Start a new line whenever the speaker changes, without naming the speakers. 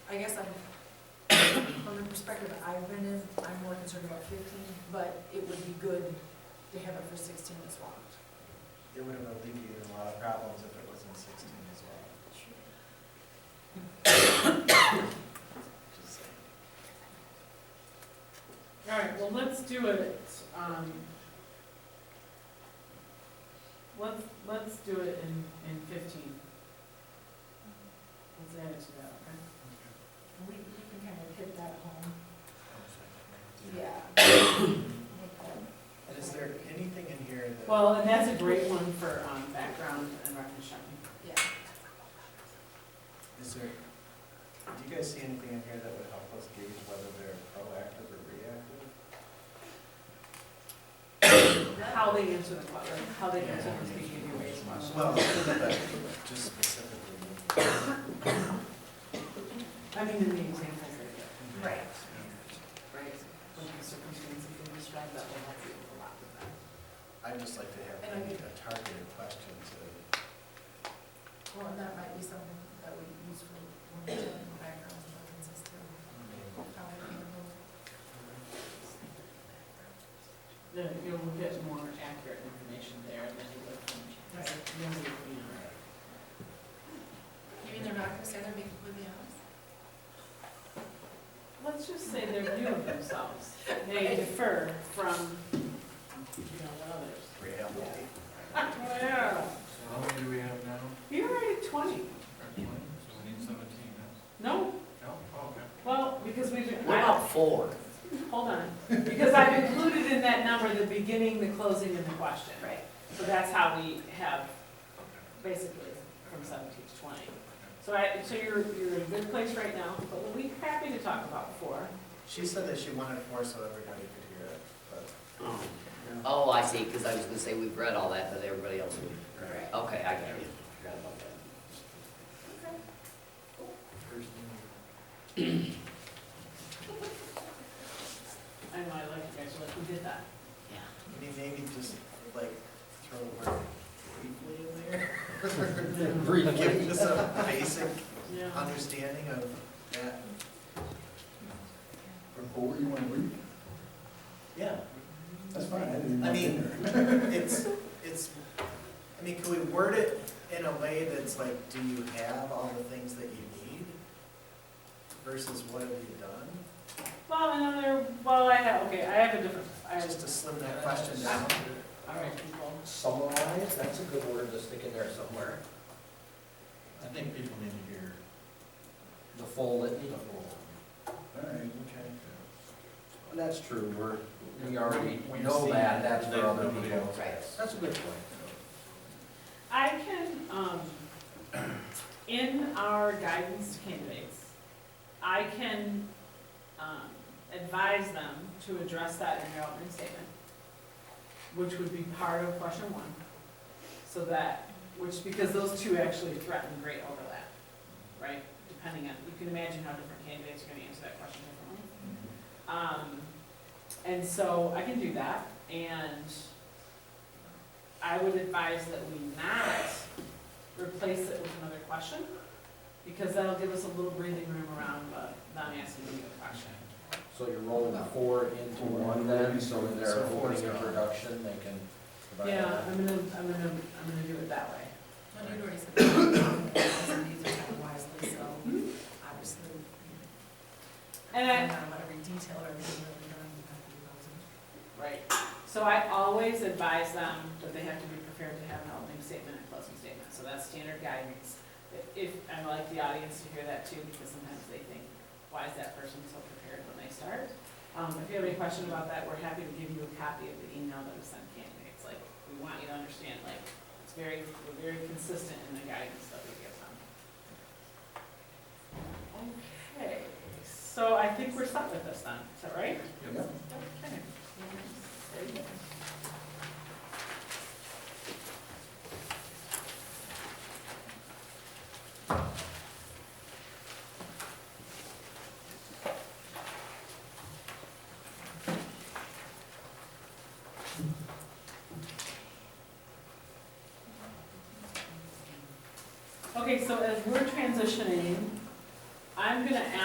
I guess I'm, from the perspective I've been in, I'm more concerned about fifteen, but it would be good to have it for sixteen as well.
It would have alleviated a lot of problems if it was in sixteen as well. Just saying.
All right, well, let's do it, um, let's, let's do it in, in fifteen. Let's add it to that, okay?
We, we can kind of hit that home.
And is there anything in here that?
Well, and that's a great one for, um, background and reference checking.
Yeah.
Is there, do you guys see anything in here that would help us gauge whether they're proactive or reactive?
How they answer the question, how they answer the speaking of race question.
Well, just specifically.
I mean, in the examples they give,
Right.
right? When the circumstances they describe, that will help you a lot with that.
I'd just like to have
And I
maybe
think-
a targeted question to,
Well, and that might be something that we use for when we're doing the background check system. How we handle
Then you'll get more accurate information there than you would from,
Right.
nobody, you know.
You mean they're not gonna say they're being completely honest?
Let's just say their view of themselves, they differ from, you know, others.
reality.
Yeah.
So how many do we have now?
You're already at twenty.
Or twenty? So we need seventeen now?
No,
No? Oh, Okay.
well, because we've, I,
Wow, four?
hold on, because I've included in that number the beginning, the closing, and the question. Right. So that's how we have, basically, from seventeen to twenty. So I, so you're, you're in a good place right now, but we'll be happy to talk about four.
She said that she wanted four so everybody could hear it, but.
Oh, I see, because I was gonna say we've read all that, but everybody else, okay, I got you. Forgot about that.
I know, I like you guys, like, we did that.
I mean, maybe just like throw a word briefly in there. Give us a basic
Yeah.
understanding of that.
Or you want to read?
Yeah.
That's fine. I didn't
I
know
mean,
that.
it's, it's, I mean, can we word it in a way that's like, do you have all the things that you need? Versus what have you done?
Well, another, well, I have, okay, I have a different, I have,
Just to slim that question down.
all right, people.
Summarize, that's a good word to stick in there somewhere.
I think people need to hear
The full litany.
the whole.
All right.
And that's true, we're, we already
We've
know
seen
that, that's
that
for other
nobody
people.
else has.
That's a good point.
I can, um, in our guidance to candidates, I can, um, advise them to address that in their opening statement, which would be part of question one. So that, which, because those two actually threaten great overlap, right? Depending on, you can imagine how different candidates are gonna answer that question differently.
mm-hmm.
Um, and so I can do that, and I would advise that we not replace it with another question, because that'll give us a little breathing room around the, them asking you a question.
So you're rolling four into one then, so in their
So four is
opening
gone.
introduction, they can. provide
Yeah,
that.
I'm gonna, I'm gonna, I'm gonna do it that way.
No, you already said that. These are done wisely, so obviously.
And I-
No matter what every Um, detail or everything that we've done, we have to be those.
Right. So I always advise them that they have to be prepared to have an opening statement and closing statement, so that's standard guidance. If, I like the audience to hear that too, because sometimes they think, why is that person so prepared when they start? Um, if you have any question about that, we're happy to give you a copy of the email that we sent candidates, like, we want you to understand, like, it's very, we're very consistent in the guidance that we give them. Okay, so I think we're stuck with this then, is that right?
Yep.
Okay. There you go. Okay, so as we're transitioning, I'm gonna ask